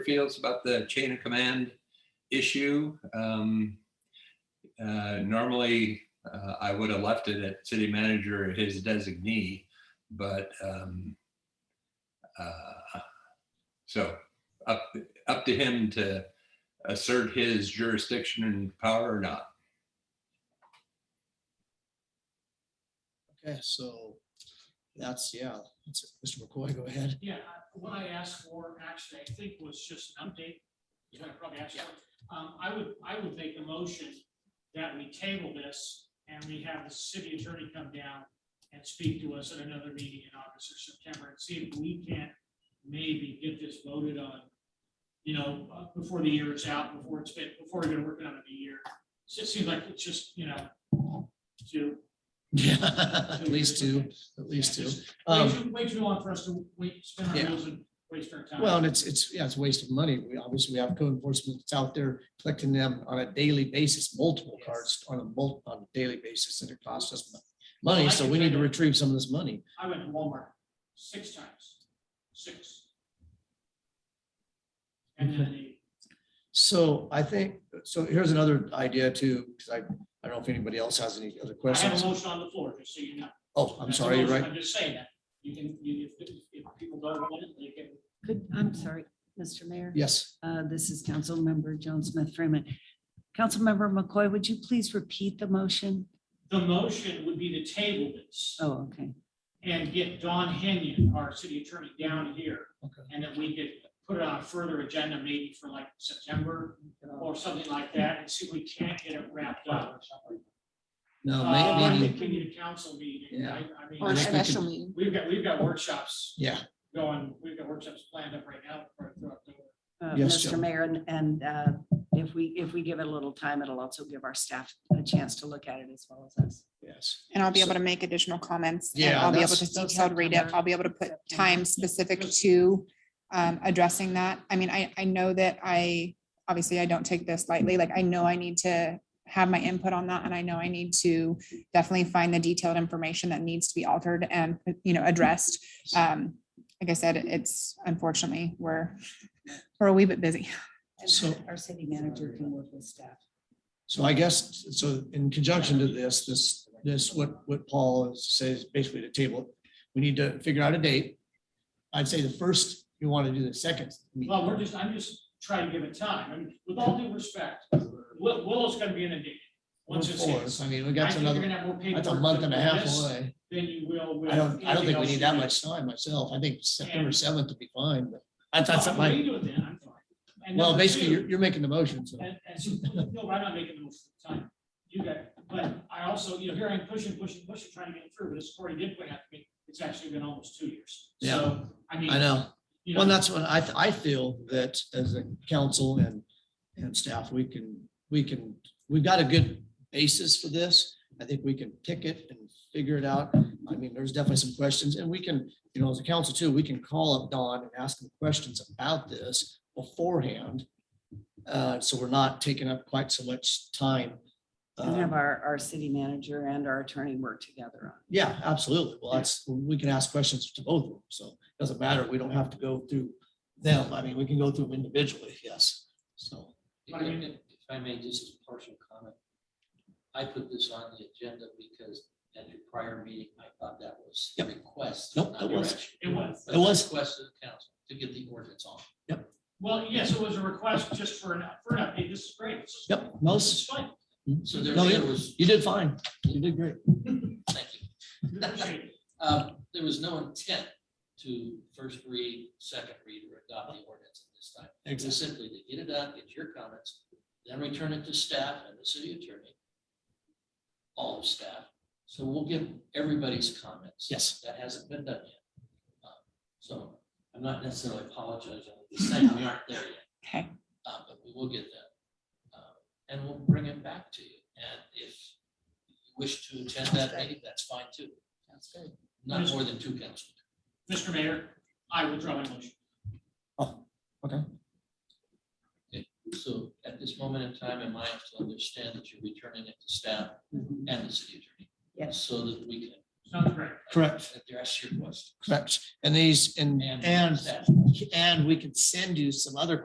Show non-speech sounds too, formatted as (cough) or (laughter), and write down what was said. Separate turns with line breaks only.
feels about the chain of command issue. Um, uh, Normally, uh, I would have left it at city manager, or his designee, but um, uh, so up, up to him to assert his jurisdiction and power or not.
Okay, so that's, yeah, that's- Mr. McCoy, go ahead. (laughs)
Yeah, I- what I asked for actually, I think was just an update. is what I probably asked for. Um, I would, I would make a motion that we table this and we have the city attorney come down and speak to us at another meeting in August or September and see if we can maybe get this voted on, you know, uh, before the year is out, before it's been, before we've been working on it a year. So it seems like it's just, you know, two.
Yeah, at least two, at least two.
Way
Um,
too, way too long for us to wait, spend our
Yeah.
wheels and waste our time.
well, and it's, it's, yeah, it's a waste of money. We obviously we have code enforcement that's out there collecting them on a daily basis, multiple cards on a mul, on a daily basis and it costs us mon- money. So we need to retrieve some of this money.
I went to Walmart six times, six. And then the,
So I think, so here's another idea too, because I, I don't know if anybody else has any other
I have
questions.
a motion on the floor, just so you know.
Oh, I'm
That's a
sorry, you're
motion,
right.
I'm just saying that. You can, you, if, if people don't want it, they can.
Could, I'm sorry, Mr. Mayor.
Yes,
Uh, This is Councilmember Joan Smith Freeman. Councilmember McCoy, would you please repeat the motion?
The motion would be to table this
Oh, okay.
and get Don Henyon, our city attorney, down here.
Okay.
And that we could put it on a further agenda, maybe for like September or something like that, and see if we can't get it wrapped up.
no,
Uh,
may-
I
maybe,
think we need a council meeting. I, I mean.
Or a
Unless we can-
special meeting.
We've got, we've got workshops
yeah.
going, we've got workshops planned up right now. for- for October.
Uh,
Yes,
Mr.
Joan.
Mayor, and- and uh, if we, if we give it a little time, it'll also give our staff a chance to look at it as well as us.
Yes.
And I'll be able
So-
to make additional comments. and
Yeah,
I'll be able
that's-
to
that's
detailed read it.
September.
I'll be able to put
September.
time specific to um, addressing that. I mean, I, I know that I, obviously I don't take this lightly. Like I know I need to have my input on that and I know I need to definitely find the detailed information that needs to be altered and, you know, addressed. Um, Like I said, it's unfortunately, we're, we're a wee bit busy.
So-
And Our city manager can work with staff.
So I guess, so in conjunction to this, this, this, what, what Paul says, basically to table, we need to figure out a date. I'd say the first, you want to do the second.
Well, we're just, I'm just trying to give it time. And with all due respect, Will, Willow's gonna be inundated. Once it's
Before,
hits.
I mean, we
I
got
think you're
another,
gonna have more
that's a
paperwork
month and a
with
half
this
away.
Than you will with.
I don't, I don't
anything
think we
else you
need that
do.
much time myself. I think September
And-
seventh would be fine, but I thought
Well,
something
we
like,
do it then, I'm fine. And
well,
number
basically,
two-
you're, you're making the motion, so.
And, and so, no, I'm not making the most of the time. You got, it. but I also, you know, here I'm pushing, pushing, pushing, trying to get it through, but as Cory did point out to me, it's actually been almost two years.
Yeah.
So, I mean.
I know.
you
Well,
know,
that's what I, th- I feel that as a council and, and staff, we can, we can, we've got a good basis for this. I think we can pick it and figure it out. I mean, there's definitely some questions and we can, you know, as a council too, we can call up Don and ask him questions about this beforehand. Uh, so we're not taking up quite so much time.
And have
Um,
our, our city manager and our attorney work together on
Yeah, absolutely. Well, that's, we can ask questions to both of them, so it doesn't matter. We don't have to go through them. I mean, we can go through them individually, yes, so.
But I mean-
If I may, just as a partial comment, I put this on the agenda because at your prior meeting, I thought that was a
Yep.
request.
Nope,
not
it was.
direction.
It was.
That's
It
a
was.
Request of the council to get the ordinance on.
Well, yes, it was a request just for an, for an update. This is great. This is-
Yep,
This
most,
is fine.
So there
No,
there was,
you did fine. You did great.
thank you.
We appreciate it.
Um, There was no intent to first read, second read, or adopt the ordinance at this time. It was simply to get it out, get your comments, then return it to staff and the city attorney. All of staff. So we'll give everybody's comments.
Yes.
That hasn't been done yet. Uh, So I'm not necessarily apologizing, I'm just saying we aren't there yet.
Okay.
Uh, But we will get that. Uh, And we'll bring it back to you. And if you wish to attend that meeting, that's fine too. That's good. Not more than two council.
Mr. Mayor, I will draw my motion.
Oh, okay.
So at this moment in time, am I to understand that you're returning it to staff
it.
mhm.
and the city attorney?
Yes.
So that we can
Sounds great.
Correct.
address your question.
Correct. And these, and,
And-
and, and we can send you some other